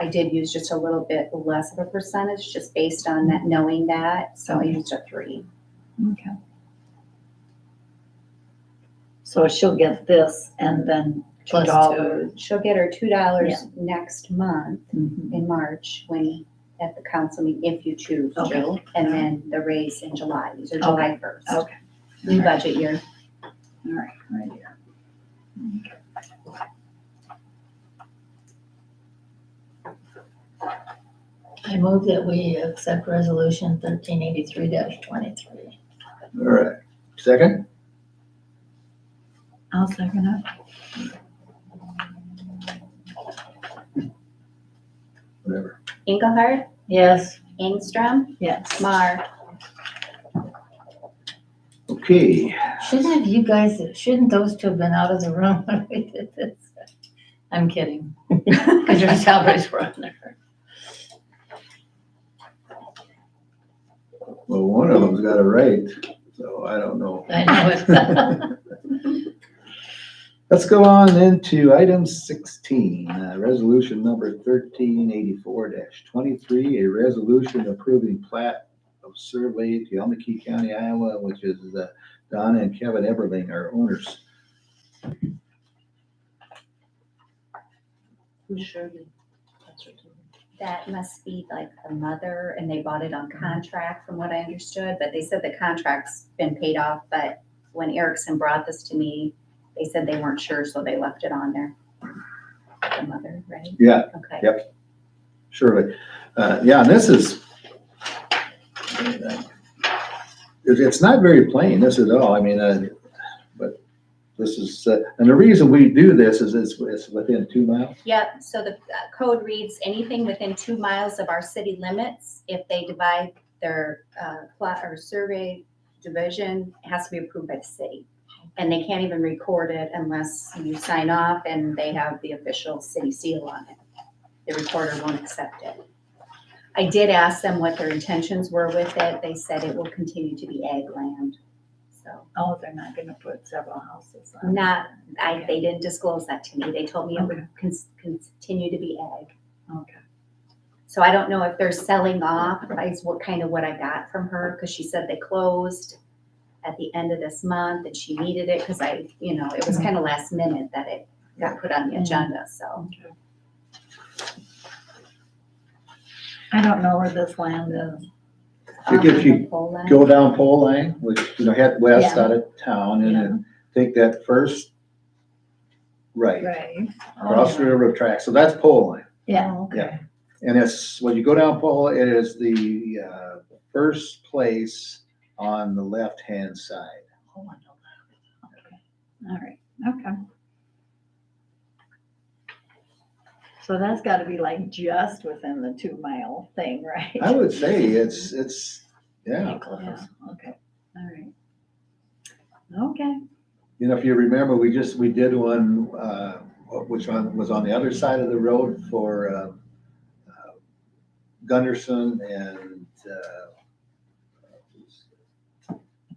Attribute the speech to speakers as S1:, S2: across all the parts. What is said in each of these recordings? S1: I did use just a little bit less of a percentage, just based on that, knowing that, so I used a three.
S2: Okay. So she'll get this and then two
S1: Plus
S2: dollars.
S1: She'll get her two dollars
S2: Yeah.
S1: next month
S2: Mhm.
S1: in March when, at the council meeting, if you choose to.
S2: Okay.
S1: And then the raise in July, these are July first,
S2: Okay,
S1: new budget year.
S2: all right, right here.
S3: I move that we accept resolution thirteen eighty-three twenty-three.
S4: All right, second,
S2: I'll second it.
S4: whatever.
S1: Engelhardt,
S3: Yes.
S1: Engstrom,
S2: Yes.
S1: Mar.
S4: Okay,
S3: Shouldn't have you guys, shouldn't those two have been out of the room when we did this? I'm kidding, because your salaries were on there.
S4: well, one of them's got it right, so I don't know.
S3: I know it.
S4: Let's go on into item sixteen, uh, resolution number thirteen eighty-four twenty-three, a resolution approving plat of survey to Yomeki County, Iowa, which is uh, Donna and Kevin Everling are owners.
S1: That must be like the mother, and they bought it on contract, from what I understood, but they said the contract's been paid off, but when Erickson brought this to me, they said they weren't sure, so they left it on there. The mother, right?
S4: Yeah,
S1: Okay.
S4: Yep. surely. Uh, yeah, and this is. It, it's not very plain, this at all, I mean, uh, but this is, uh, and the reason we do this is it's, it's within two miles.
S1: Yep, so the uh, code reads, anything within two miles of our city limits, if they divide their uh, plot or survey division, it has to be approved by the city. And they can't even record it unless you sign off and they have the official city seal on it. The recorder won't accept it. I did ask them what their intentions were with it. They said it will continue to be ag land. So
S2: Oh, they're not gonna put several houses on.
S1: not, I, they didn't disclose that to me. They told me it would con- continue to be ag.
S2: Okay.
S1: So I don't know if they're selling off, is what kind of what I got from her, because she said they closed at the end of this month and she needed it, because I, you know, it was
S4: Mm-hmm.
S1: kind of last minute that it got put on the agenda, so.
S2: I don't know where this land is.
S4: I think
S1: Um,
S4: if you
S1: Pole line.
S4: go down pole line, which, you know, head west out of town and then take that first right,
S2: Right. Oh,
S4: across the railroad track. So that's pole line.
S2: Yeah.
S4: Yeah. And it's, when you go down pole, it is the, uh, first place on the left-hand side.
S2: Oh, I know that. Okay. All right, okay. So that's gotta be like just within the two mile thing, right?
S4: I would say it's, it's, yeah.
S2: Yeah, okay, all right. Okay,
S4: You know, if you remember, we just, we did one, uh, which one was on the other side of the road for, uh, uh, Gunderson and, uh,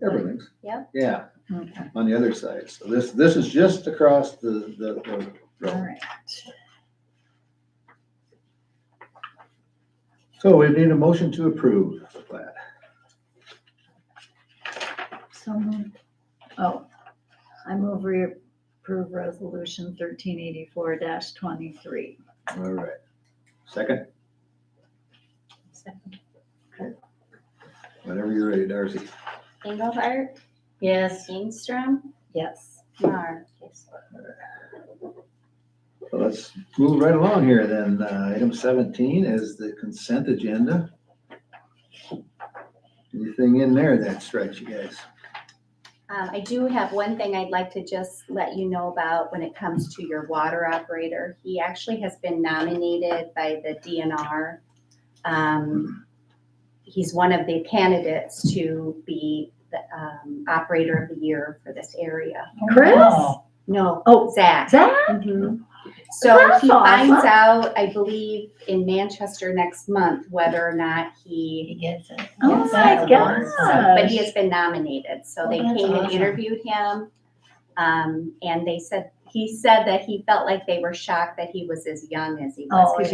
S4: Everlings.
S1: Yep.
S4: Yeah,
S2: okay,
S4: on the other side. So this, this is just across the, the, the
S2: all
S4: road.
S2: right.
S4: So we need a motion to approve the plat.
S2: So, moved. oh, I move we approve resolution thirteen eighty-four twenty-three.
S4: All right. Second, whenever you're ready, Darcy.
S1: Engelhardt,
S3: Yes.
S1: Ingstrom,
S2: Yes.
S1: Mar.
S4: Well, let's move right along here then. Uh, Item seventeen is the consent agenda. Anything in there that strikes you guys?
S1: Um, I do have one thing I'd like to just let you know about when it comes to your water operator. He actually has been nominated by the DNR. Um, he's one of the candidates to be the, um, operator of the year for this area.
S2: Chris?
S1: No,
S2: Oh.
S1: Zach.
S2: Zach?
S1: Mhm. So
S2: That's
S1: he finds
S2: awesome.
S1: out, I believe, in Manchester next month, whether or not he,
S3: He gets it.
S2: Oh
S3: Yes,
S2: my
S3: that
S2: gosh.
S3: works.
S1: but he has been nominated. So they
S3: Oh, that's
S1: came and
S3: awesome.
S1: interviewed him. Um, and they said, he said that he felt like they were shocked that he was as young as he was.
S2: Oh,
S1: Because